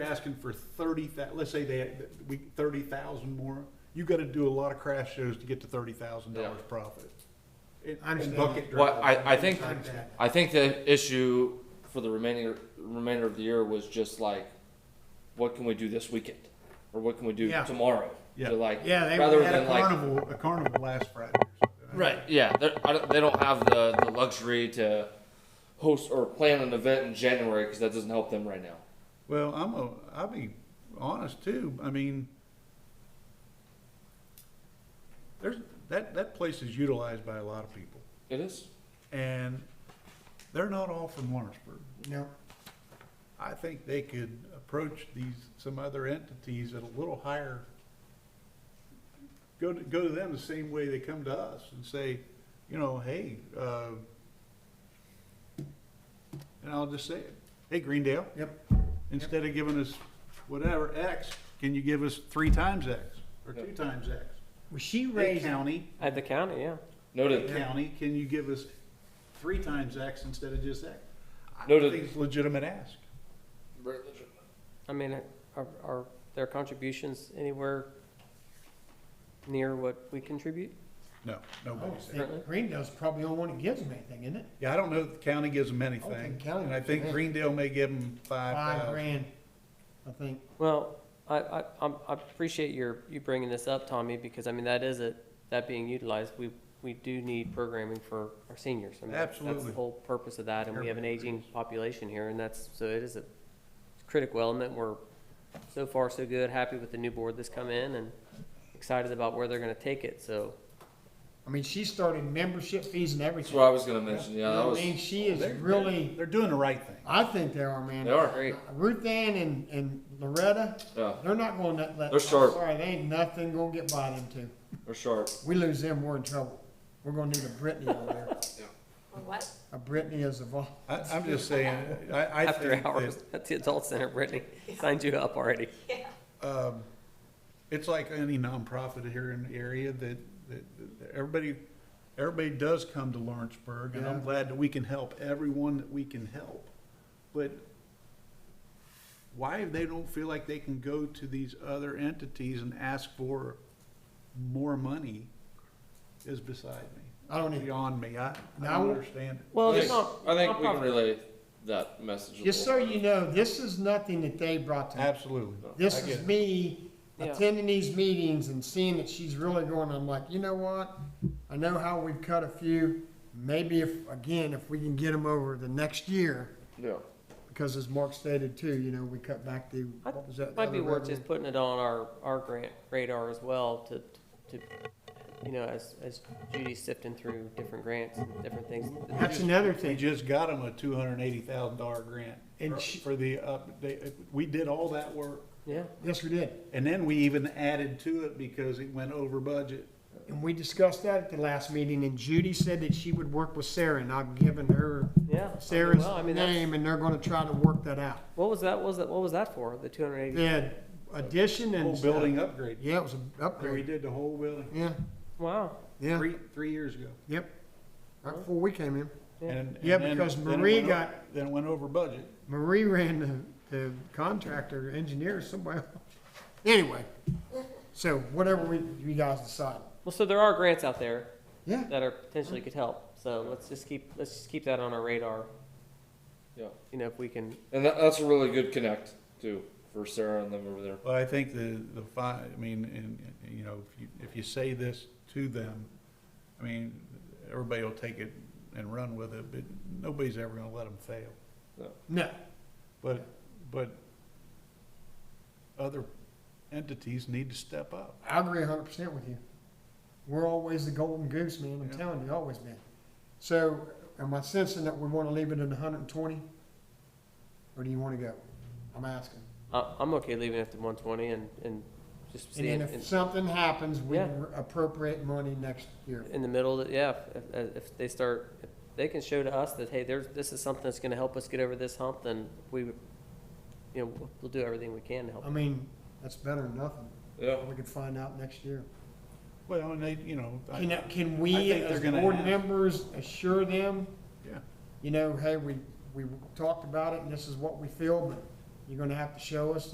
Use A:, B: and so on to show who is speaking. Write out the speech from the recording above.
A: asking for thirty let's say they, we, thirty thousand more, you gotta do a lot of crash shows to get to thirty thousand
B: Yeah.
A: dollars profit. And-
C: I
A: And
C: understand.
A: bucket
B: Well,
A: drivers.
B: I, I think,
C: Like that.
B: I think the issue for the remaining, remainder of the year was just like, what can we do this weekend? Or what can we do
C: Yeah.
B: tomorrow?
A: Yeah.
B: To like,
C: Yeah, they
B: rather
A: Had a
B: than like,
A: carnival, a carnival last Friday or something.
B: right, yeah, they're, I don't, they don't have the, the luxury to host or plan an event in January, cause that doesn't help them right now.
A: Well, I'm a, I'll be honest too, I mean, there's, that, that place is utilized by a lot of people,
B: It is,
A: and they're not all from Lawrenceburg.
C: No,
A: I think they could approach these, some other entities at a little higher. Go to, go to them the same way they come to us and say, you know, hey, uh, and I'll just say it, hey, Greendale,
C: yep,
A: instead of giving us whatever X, can you give us three times X or
B: Yep.
A: two times X?
C: well, she
A: Hey,
C: raised,
A: county,
D: At the county, yeah.
A: hey,
B: noted,
A: county, can you give us three times X instead of just X? I
B: No, to-
A: think it's a legitimate ask.
D: I mean, are, are their contributions anywhere near what we contribute?
A: No,
C: I
A: nobody
C: don't
A: said.
C: think Greendale's probably the only one that gives them anything, isn't it?
A: Yeah, I don't know if the county gives them
C: I don't
A: anything,
C: think county
A: and I
C: gives
A: think
C: them
A: Greendale may give them five
C: Five
A: thousand.
C: grand, I think.
D: Well, I, I, I'm- I appreciate your, you bringing this up, Tommy, because I mean, that is it, that being utilized, we, we do need programming for our seniors. I mean, that's- That's
A: Absolutely.
D: the whole purpose of that, and we have an aging population here, and that's, so it is a critical element. We're so far so good, happy with the new board that's come in and excited about where they're gonna take it, so.
C: I mean, she started membership fees and
B: that's
C: everything.
B: what I was gonna mention,
C: You
B: yeah, that
C: know
B: was,
C: what I mean, she is really,
A: They're doing the right thing.
C: I think they are,
B: they
C: man.
B: are,
C: Ruth Ann and, and Loretta,
B: yeah,
C: they're not gonna let, let.
B: They're sharp.
C: I'm Sorry, they ain't nothing gonna get by them two.
B: they're sharp.
C: We lose them, we're in trouble. We're gonna need a Brittany over there.
E: What?
C: A Brittany is a vol,
A: I, I'm just saying, I, I
D: After
A: think
D: hours
A: that,
D: at the adult center, Brittany, signed you up already.
A: um, it's like any nonprofit here in the area that, that, that everybody, everybody does come to Lawrenceburg, and I'm
C: Yeah.
A: glad that we can help everyone that we can help. But why if they don't feel like they can go to these other entities and ask for more money is beside me.
C: I don't even,
A: beyond me. I, I
C: Now-
A: don't understand it.
D: Well,
B: I
D: it's
B: think-
D: not.
B: I think we can
D: nonprofit.
B: relay that message a
C: just
B: little.
C: so you know, this is nothing that they brought to me.
A: Absolutely. I
C: This
A: get
C: is
A: it.
C: me
D: Yeah.
C: attending these meetings and seeing that she's really going, I'm like, you know what? I know how we've cut a few, maybe if, again, if we can get them over the next year,
B: Yeah.
C: because as Mark stated too, you know, we cut back the,
D: I-
C: what was that? the
D: Might be
C: other
D: worth
C: revenue?
D: just putting it on our, our grant radar as well to, to, you know, as, as Judy's sifting through different grants and different things.
C: That's another
A: We
C: thing,
A: just got them a two hundred and eighty thousand dollar grant
C: And
A: for-
C: she-
A: for the update. We did all that work.
D: Yeah,
C: yes, we did,
A: And then we even added to it because it went over budget.
C: and we discussed that at the last meeting, and Judy said that she would work with Sarah, and I've given her
D: yeah. I mean,
C: Sarah's
D: well, I mean, that's-
C: name, and they're gonna try to work that out.
D: What was that, what was that, what was that for, the two hundred eighty?
C: The addition and.
A: Whole building upgrade.
C: Yeah, it was an
A: We
C: upgrade,
A: did the whole building,
C: yeah,
D: Wow,
C: yeah.
A: three, three years ago.
C: Yep, right before we came in.
D: Yeah.
A: And- and
C: Yeah,
A: then-
C: because
A: then it
C: Marie
A: went o-
C: got-
A: Then it went over budget.
C: Marie ran the, the contractor, engineer, somebody. Anyway, so whatever we, you guys decide.
D: well, so there are grants out there
C: Yeah,
D: that are potentially could help, so let's just keep, let's just keep that on our radar.
B: Yeah.
D: You know, if we can,
B: And that, that's a really good connect too for Sarah and them over there.
A: Well, I think the, the fi, I mean, and, and, you know, if you, if you say this to them, I mean, everybody will take it and run with it, but nobody's ever gonna let them fail.
C: no,
A: But, but other entities need to step up.
C: I agree a hundred percent with you. We're always the golden goose, man, I'm
A: Yeah.
C: telling you, always been. So, am I sensing that we wanna leave it at hundred and twenty? Or do you wanna go? I'm asking.
D: I, I'm okay leaving it at the one twenty and, and just
C: And
D: seeing.
C: then if something happens, we
D: Yeah.
C: appropriate money next year.
D: in the middle, that, yeah, if- if, if they start, if they can show to us that, hey, there's, this is something that's gonna help us get over this hump, then we, you know, we'll- we'll do everything we can to help.
C: I mean, that's better than nothing.
B: Yeah.
C: We could find out next year.
A: Well, and they, you know, I,
C: Can, can
A: I
C: we,
A: think they're
C: as
A: gonna
C: board
A: have-
C: members, assure them,
A: yeah,
C: you know, hey, we, we talked about it and this is what we feel, but you're gonna have to show us